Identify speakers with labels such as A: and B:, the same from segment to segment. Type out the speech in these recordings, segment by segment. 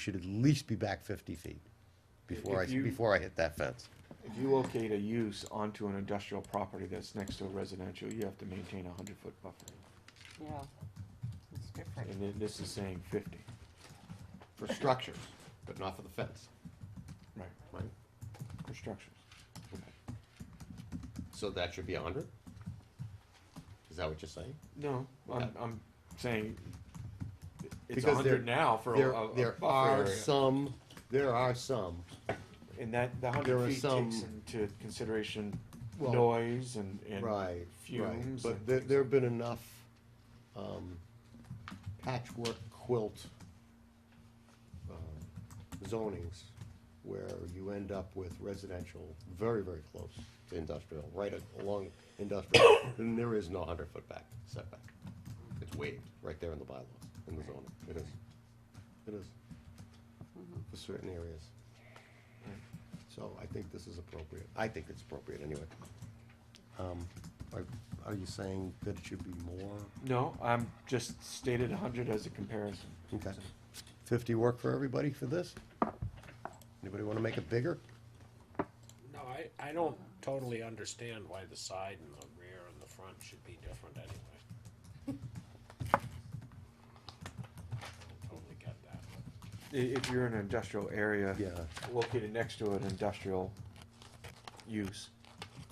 A: should at least be back fifty feet before I,
B: If you-
A: before I hit that fence.
B: If you locate a use onto an industrial property that's next to a residential, you have to maintain a hundred foot buffer.
C: Yeah, it's different.
B: And then this is saying fifty.
D: for structures, but not for the fence,
B: Right.
D: right?
B: For structures.
D: So that should be a hundred? Is that what you're saying?
B: No, I'm, I'm saying it's a
D: Because there-
B: hundred now for a,
D: There,
B: a a
D: there
B: buffer
D: are
B: area.
D: some, there are some,
B: And that, the
D: there
B: hundred
D: are
B: feet
D: some-
B: takes into consideration
D: Well,
B: noise and, and
D: right, right,
B: fumes.
D: but
B: and
D: there,
B: things
D: there
B: like-
D: have been enough, um, patchwork quilt, um, zonings where you end up with residential very, very close to industrial, right along industrial, and there is no hundred foot back setback. It's waived right there in the bylaws, in the zoning, it is, it is, for certain areas. So I think this is appropriate, I think it's appropriate anyway. Um, Are, are you saying that it should be more?
B: No, I'm just stated a hundred as a comparison.
D: Okay.
A: Fifty work for everybody for this? Anybody wanna make it bigger?
E: No, I, I don't totally understand why the side and the rear and the front should be different anyway. I don't Totally get that.
B: I- If you're in an industrial area.
D: Yeah.
B: Located next to an industrial use,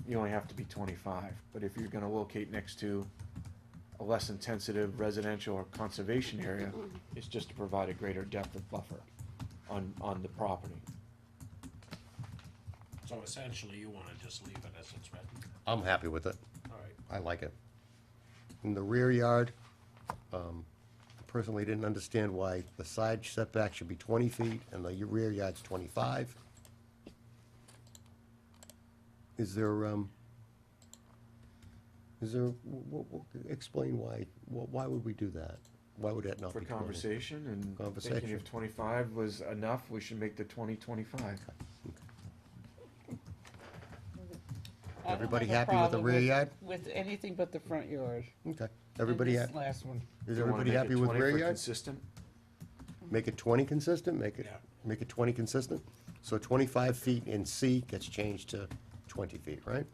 B: you only have to be twenty-five, but if you're gonna locate next to a less intensive residential or conservation area, it's just to provide a greater depth of buffer on, on the property.
E: So essentially, you wanna just leave it as it's written,
A: I'm happy with it.
E: alright.
A: I like it. In the rear yard, um, personally didn't understand why the side setback should be twenty feet and the rear yard's twenty-five. Is there, um, is there, wh- wh- wh- explain why, wh- why would we do that? Why would that not
B: For
A: be twenty?
B: conversation and thinking
A: Conversation.
B: if twenty-five was enough, we should make the twenty twenty-five.
C: I don't
A: Everybody
C: have a
A: happy with the
C: problem
A: rear yard?
C: With anything but the front yard.
A: Okay, everybody,
C: And this
A: ha-
C: Last one.
A: is everybody happy with rear yards?
B: Consistent,
A: Make it twenty consistent, make it,
E: Yeah.
A: make it twenty consistent. So twenty-five feet in C gets changed to twenty feet, right?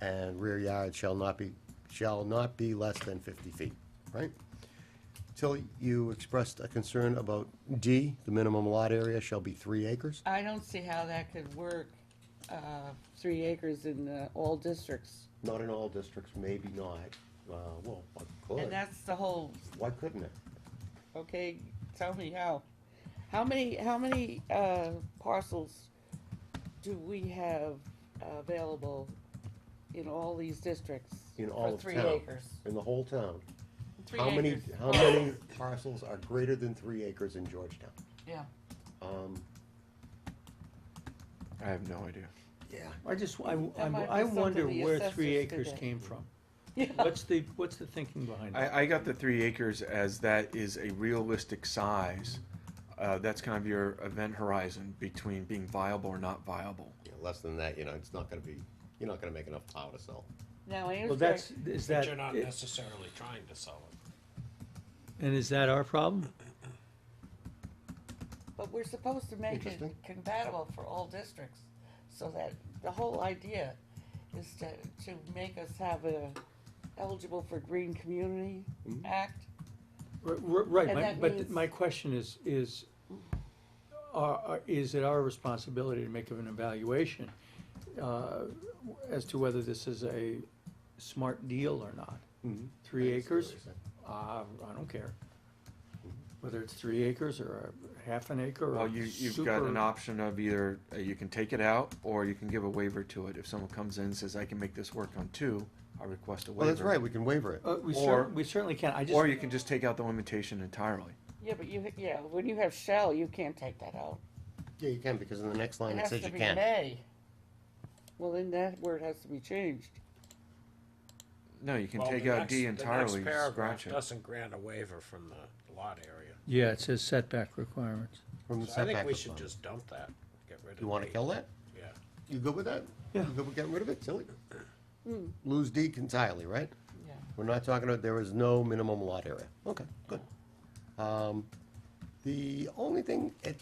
A: And rear yard shall not be, shall not be less than fifty feet, right? Till you expressed a concern about D, the minimum lot area shall be three acres.
C: I don't see how that could work, uh, three acres in uh, all districts.
D: Not in all districts, maybe not. Uh, well, I
C: And
D: could.
C: that's the whole,
D: Why couldn't it?
C: okay, tell me how. How many, how many uh, parcels do we have available in all these districts?
D: In all of
C: For three
D: town.
C: acres.
D: In the whole town.
C: Three
D: How many,
C: acres.
D: how many parcels are greater than three acres in Georgetown?
C: Yeah.
D: Um,
B: I have no idea.
D: yeah.
F: I just, I,
C: That
F: I'm-
C: might be
F: I
C: something
F: wonder
C: the
F: where
C: assessors
F: three
C: did
F: acres
C: that.
F: came from.
C: Yeah.
F: What's the, what's the thinking behind it?
B: I, I got the three acres as that is a realistic size. Uh, that's kind of your event horizon between being viable or not viable.
D: Yeah, less than that, you know, it's not gonna be, you're not gonna make enough power to sell.
C: Now, I
F: Well,
C: understand.
F: that's, is
E: But
F: that,
E: you're not
F: it-
E: necessarily trying to sell it.
F: and is that our problem?
C: But we're supposed to make it
D: Interesting.
C: compatible for all districts, so that the whole idea is to, to make us have a eligible for Green Community Act.
F: R- r- Right,
C: And
F: my-
C: that
F: but
C: means-
F: my question is, is, are- are- is it our responsibility to make an evaluation uh, as to whether this is a smart deal or not?
B: Mm-hmm.
F: Three acres? Uh, I don't care. Whether it's three acres or a half an acre or
B: Well, you, you've got an
F: super-
B: option of either uh, you can take it out or you can give a waiver to it. If someone comes in and says, I can make this work on two, I request a waiver.
A: Well, that's right, we can waiver it.
F: Uh, we
B: Or-
F: cer- we certainly can, I just.
B: Or you can just take out the limitation entirely.
C: Yeah, but you, yeah, when you have shell, you can't take that out.
A: Yeah, you can, because in the next
C: It
A: line it
C: has
A: says
C: to
A: you
C: be
A: can.
C: may. Well, then that word has to be changed.
B: No, you can
E: Well,
B: take
E: the
B: out
E: next-
B: D
E: the next
B: entirely,
E: paragraph
B: scratch it.
E: Doesn't grant a waiver from the lot area.
F: Yeah, it says setback requirements.
A: From the
E: So I think
A: setback
E: we
A: of
E: should
A: the-
E: just dump that, get rid of.
A: You wanna
E: D.
A: kill that?
E: Yeah.
A: You good with that?
F: Yeah.
A: You good with getting rid of it, Tilly?
C: Hmm.
A: Lose D entirely, right?
C: Yeah.
A: We're not talking about, there is no minimum lot area. Okay, good. Um, The only thing, it